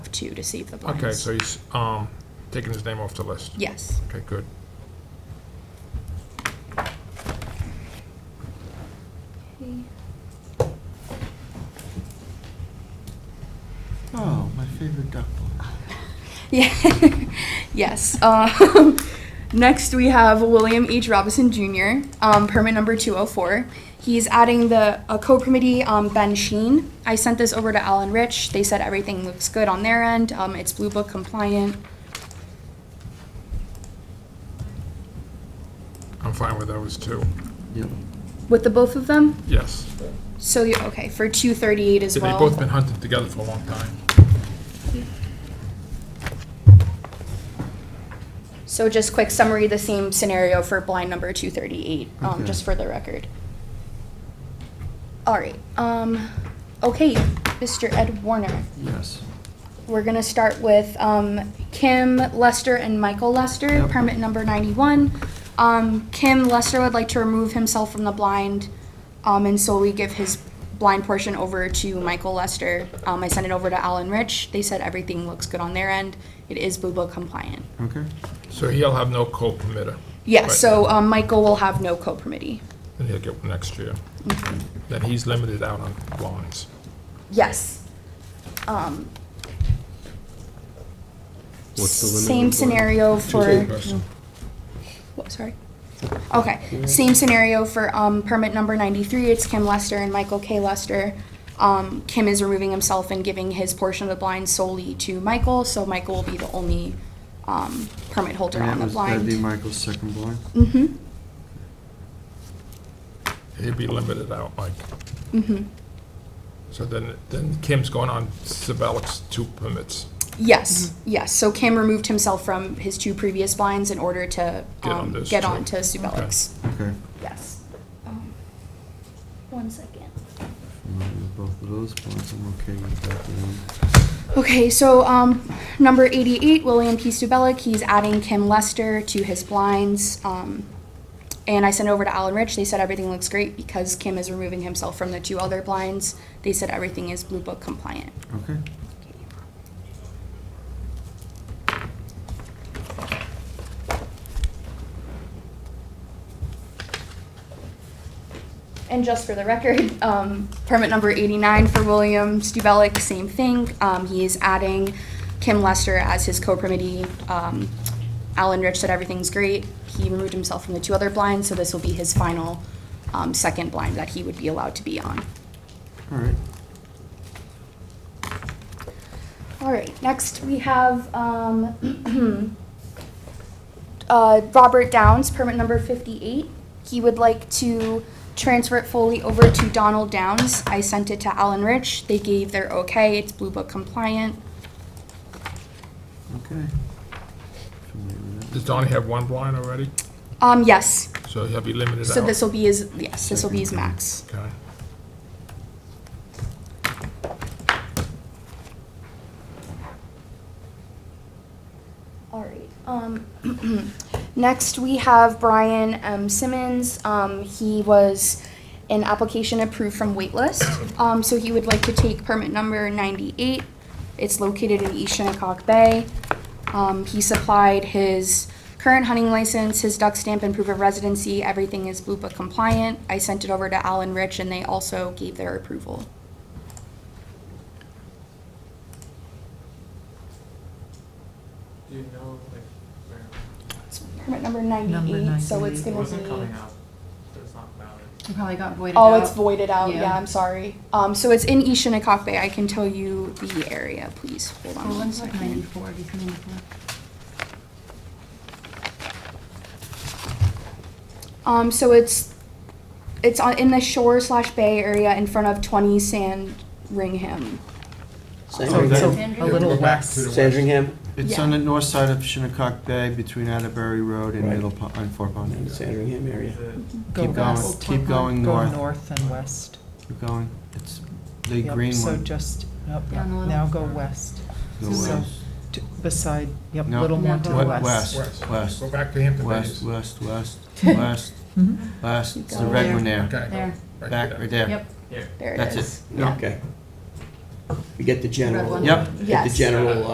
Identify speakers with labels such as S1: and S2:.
S1: up to to see if the blinds.
S2: Okay, so he's um, taking his name off the list.
S1: Yes.
S2: Okay, good.
S3: Oh, my favorite duck blind.
S1: Yeah. yes. Um, next, we have William H. Robinson Jr., um, permit number 204. He's adding the a co-permittee, um, Ben Sheen. I sent this over to Alan Rich. They said everything looks good on their end. Um, it's Blue Book compliant.
S2: I'm fine with those two.
S3: Yep.
S1: With the both of them?
S2: Yes.
S1: So, you okay, for 238 as
S2: They've
S1: well.
S2: both been hunting together for a long time.
S1: So just quick summary, the same scenario for blind number two thirty-eight, um,
S3: Okay.
S1: just for the record. All right, um, okay, Mr. Ed Warner,
S3: Yes.
S1: we're gonna start with, um, Kim Lester and Michael Lester,
S3: Yep.
S1: permit number ninety-one. Um, Kim Lester would like to remove himself from the blind, um, and so we give his blind portion over to Michael Lester. Um, I sent it over to Alan Rich, they said everything looks good on their end, it is Blue Book compliant.
S3: Okay.
S2: So he'll have no co-permitter,
S1: Yeah,
S2: Right.
S1: so um, Michael will have no co-permittee.
S2: and he'll get one next year. Then he's limited out on blinds.
S1: Yes. Um,
S4: What's the limit?
S1: same
S4: of the-
S1: scenario for,
S2: Person.
S1: what, sorry. Okay, same scenario for um, permit number 93. It's Kim Lester and Michael K. Lester. Um, Kim is removing himself and giving his portion of the blind solely to Michael, so Michael will be the only um, permit holder
S3: And that
S1: on the
S3: was- That'd be
S1: blind.
S3: Michael's second blind.
S1: Mm-hmm,
S2: He'll be limited out, Mike.
S1: mm-hmm.
S2: So then, then Kim's going on Sabelic's two permits.
S1: Yes,
S2: Mm-hmm.
S1: yes. So Kim removed himself from his two previous blinds in order to
S2: Get on
S1: um,
S2: those
S1: get
S2: two.
S1: on to Subelik's.
S3: Okay.
S1: Yes. Um, One second.
S3: I'm gonna do Both of those blinds, I'm okay with that then.
S1: Okay, so um, number 88, William P. Subelik, he's adding Kim Lester to his blinds. Um, and I sent it over to Alan Rich. They said everything looks great because Kim is removing himself from the two other blinds. They said everything is Blue Book compliant.
S3: Okay.
S1: And just for the record, um, permit number 89 for William Stubelik, same thing. Um, He is adding Kim Lester as his co-permittee. Um, Alan Rich said everything's great. He removed himself from the two other blinds, so this will be his final um, second blind that he would be allowed to be on.
S3: All right.
S1: All right, next we have um, uh, Robert Downs, permit number 58. He would like to transfer it fully over to Donald Downs. I sent it to Alan Rich. They gave their okay. It's Blue Book compliant.
S3: Okay. Familiar with
S2: Does Donnie have one blind already?
S1: Um, yes,
S2: So he'll be limited out.
S1: so this will be his, yes, this will be his max.
S2: Okay.
S1: All right. Um, next, we have Brian M. Simmons. Um, he was an application approved from waitlist. Um, so he would like to take permit number 98. It's located in East Shinnecock Bay. Um, he supplied his current hunting license, his duck stamp, and proof of residency. Everything is Blue Book compliant. I sent it over to Alan Rich, and they also gave their approval.
S5: Do you know, like, where,
S1: It's permit number 98, so it's
S6: 98.
S1: going
S5: it
S1: to be.
S5: wasn't coming up, so it's not valid.
S6: It probably got voided
S1: Oh,
S6: out.
S1: it's voided out. Yeah,
S6: Yeah.
S1: I'm sorry. Um, so it's in East Shinnecock Bay. I can tell you the area. Please hold on.
S6: Well,
S1: one
S6: one's like
S1: second.
S6: ninety-four, it's ninety-four.
S1: Um, so it's it's on in the shore slash bay area in front of 20 Sandringham.
S3: So-
S4: Sandringham?
S6: A little less.
S4: Sandringham
S3: It's
S1: Yeah.
S3: on the north side of Shinnecock Bay between Atterbury Road and
S4: Right.
S3: Middle Pond, and Four Pond.
S4: and Sandringham area.
S5: Is it,
S7: Go
S3: Keep going-
S7: west.
S3: keep going
S7: Go
S3: north.
S7: north and west.
S3: Keep going. It's the
S7: Yep,
S3: green
S7: So
S3: one.
S7: just, yep,
S6: Down the little-
S7: now go west,
S3: Go
S7: so-
S3: west.
S7: to- beside, yep,
S3: No.
S7: little more
S6: No,
S7: to
S6: go
S7: the
S3: Wet-
S7: west.
S2: West.
S3: West.
S2: Go back to Hampton
S3: West,
S2: Bays.
S3: west, west, west,
S7: Mhm.
S3: west. It's the
S6: Go
S3: red
S6: there.
S3: one there.
S2: Okay.
S6: There,
S2: right
S3: Back,
S2: there.
S3: right there.
S6: yep.
S5: here?
S1: There it is.
S3: That's it.
S4: Okay. We get the general.
S8: one?
S9: Yep.
S4: Get the
S6: Yes.
S4: general uh,